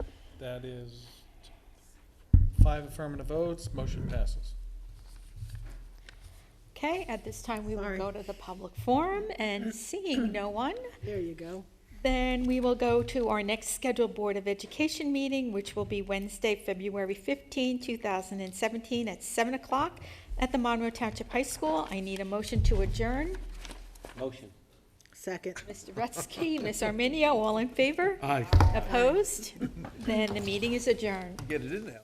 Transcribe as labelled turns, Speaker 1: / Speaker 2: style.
Speaker 1: That is five affirmative votes, motion passes.
Speaker 2: Okay, at this time, we will
Speaker 3: Sorry.
Speaker 2: go to the public forum, and seeing no one,
Speaker 3: There you go.
Speaker 2: then we will go to our next scheduled Board of Education meeting, which will be Wednesday, February 15, 2017, at 7 o'clock at the Monroe Township High School. I need a motion to adjourn.
Speaker 4: Motion.
Speaker 3: Second.
Speaker 2: Mr. Rutsky, Ms. Arminio, all in favor?
Speaker 5: Aye.
Speaker 2: Opposed? Then the meeting is adjourned.
Speaker 5: Get it in there.